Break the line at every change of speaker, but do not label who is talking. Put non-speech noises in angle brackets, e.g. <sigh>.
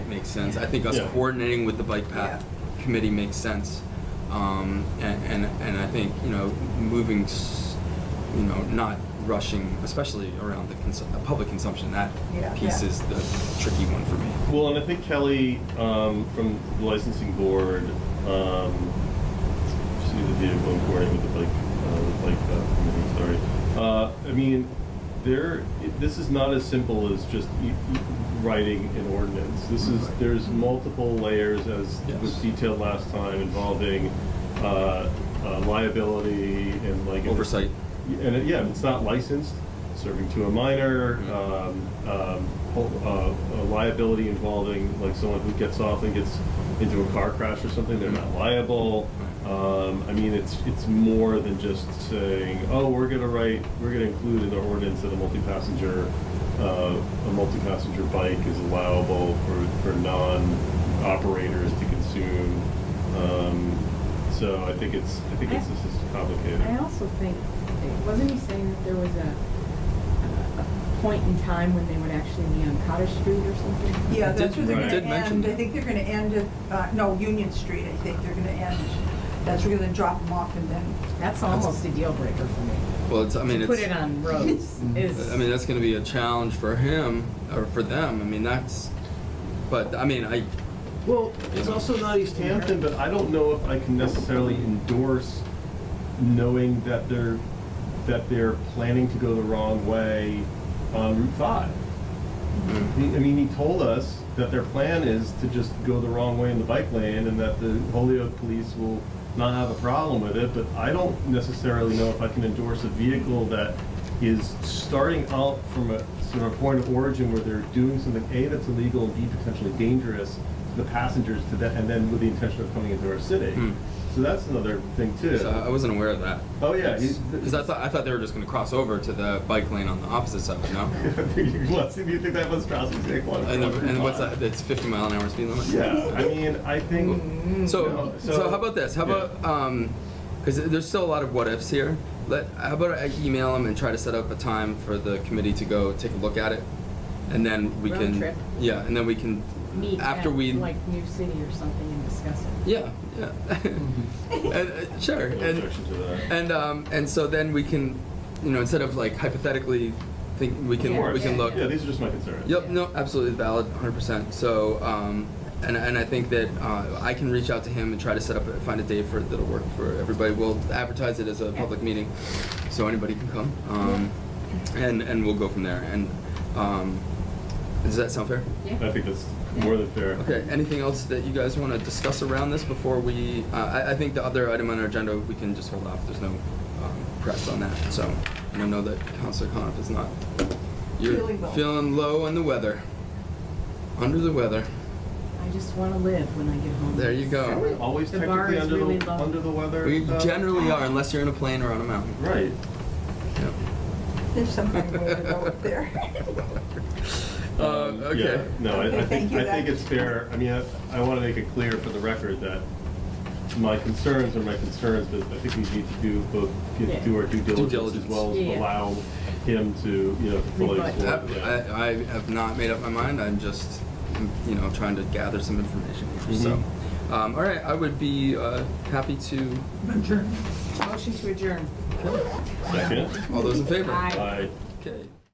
makes sense. I think us
Yeah.
coordinating with the bike path committee makes sense. Um, and, and, and I think, you know, moving, s- you know, not rushing, especially around the consu- the public consumption, that
Yeah.
piece
Yeah.
is the tricky one for me.
Well, and I think Kelly um, from the licensing board, um, see the vehicle and coordinate with the bike, uh, the bike path committee. Sorry, uh, I mean, there. It, this is not as simple as just e- e- writing an ordinance. This is there's multiple layers, as was
Yes.
detailed last time, involving uh, uh, liability and like
Oversight.
and it, yeah, if it's not licensed, serving to a minor,
Mhm.
um, um, whole- uh, a liability involving like someone who gets off and gets into a car crash or something, they're not liable.
Right.
Um, I mean, it's it's more than just saying, oh, we're gonna write, we're gonna include in the ordinance that a multi-passenger, uh, a multi-passenger bike is allowable for for non-operators to consume. Um, so I think it's I think it's this is complicated.
I also think, wasn't he saying that there was a, a point in time when they would actually be on Cottage Street or something?
Yeah, that's where
Did-
they're
right.
gonna
did mention
end, I
that.
think they're gonna end at, uh, no, Union Street, I think they're gonna end. That's where they're gonna drop them off and then,
That's almost a deal breaker for me.
Well, it's, I mean,
To
it's. Mm-hmm.
Put it
<laughs>
on roads is.
I mean, that's going to be a challenge for him or for them. I mean, that's, but I mean, I,
Well, it's also not East Hampton, but I don't know if I can necessarily endorse knowing that they're, that they're planning to go the wrong way on Route Five. He- I mean, he told us that their plan is to just go the wrong way in the bike lane and that the Holyoke police will not have a problem with it, but I don't necessarily know if I can endorse a vehicle that is starting out from a sort of point of origin where they're doing something, A, that's illegal and B, potentially dangerous to the passengers to that, and then with the intention of coming into our city.
Hmm.
So that's another thing too.
so uh, I wasn't aware of that.
Oh, yeah. he's-
Because I thought, I thought they were just going to cross over to the bike lane on the opposite side, no?
What, do <laughs> you think that was Strauss's example?
And, the- and what's that? It's 50 mile an hour speed limit.
Yeah, I mean, I think.
So,
No,
so how about this? How about, um, because there's still a lot of what ifs here. Let, how about I email them and try to set up a time for the committee to go take a look at it? And then we
Road
can.
trip.
Yeah, and then we can,
Meet
after
at,
we.
like New City or something and discuss it.
Yeah, yeah. <laughs> and, uh, sure.
No
And,
objection to that.
and um, and so then we can, you know, instead of like hypothetically, think we can
Of course.
we can look.
Yeah, these are just my concerns.
Yep. No. Absolutely valid. 100. percent So, um, and and I think that uh, I can reach out to him and try to set up a, find a day for that'll work for everybody. We'll advertise it as a public meeting, so anybody can come. Um, and and we'll go from there. And um, does that sound fair?
Yeah.
I think that's more than fair.
Okay, anything else that you guys want to discuss around this before we, uh, I, I think the other item on our agenda, we can just hold off, there's no um, press on that, so. And I know that Counselor Coniff is not, you're
Feeling low.
feeling low on the weather, under the weather.
I just wanna live when I get home.
There you go.
Are we always
The bar
technically
is
under
really
the,
low.
under the weather?
uh, We
though?
generally are unless you're in a plane or on a mountain.
Right.
Yep.
there's some kind of way to go up there. <laughs>
<laughs> Uh,
Um,
okay.
yeah, No, I, I
Okay,
think,
thank you,
I
that-
think it's fair, I mean, I, I wanna make it clear for the record that my concerns are my concerns, but I think we need to do both,
Yeah.
do our due diligence as
diligence.
well as
Yeah, yeah.
allow him to, you know, fully
Rebut.
explore.
Yep,
yeah.
I, I have not made up my mind, I'm just, you know, trying to gather some information here, so. Um, all right, I would be, uh, happy to,
Motion to adjourn.
Second?
all those in favor?
Aye.
Aye.
Okay.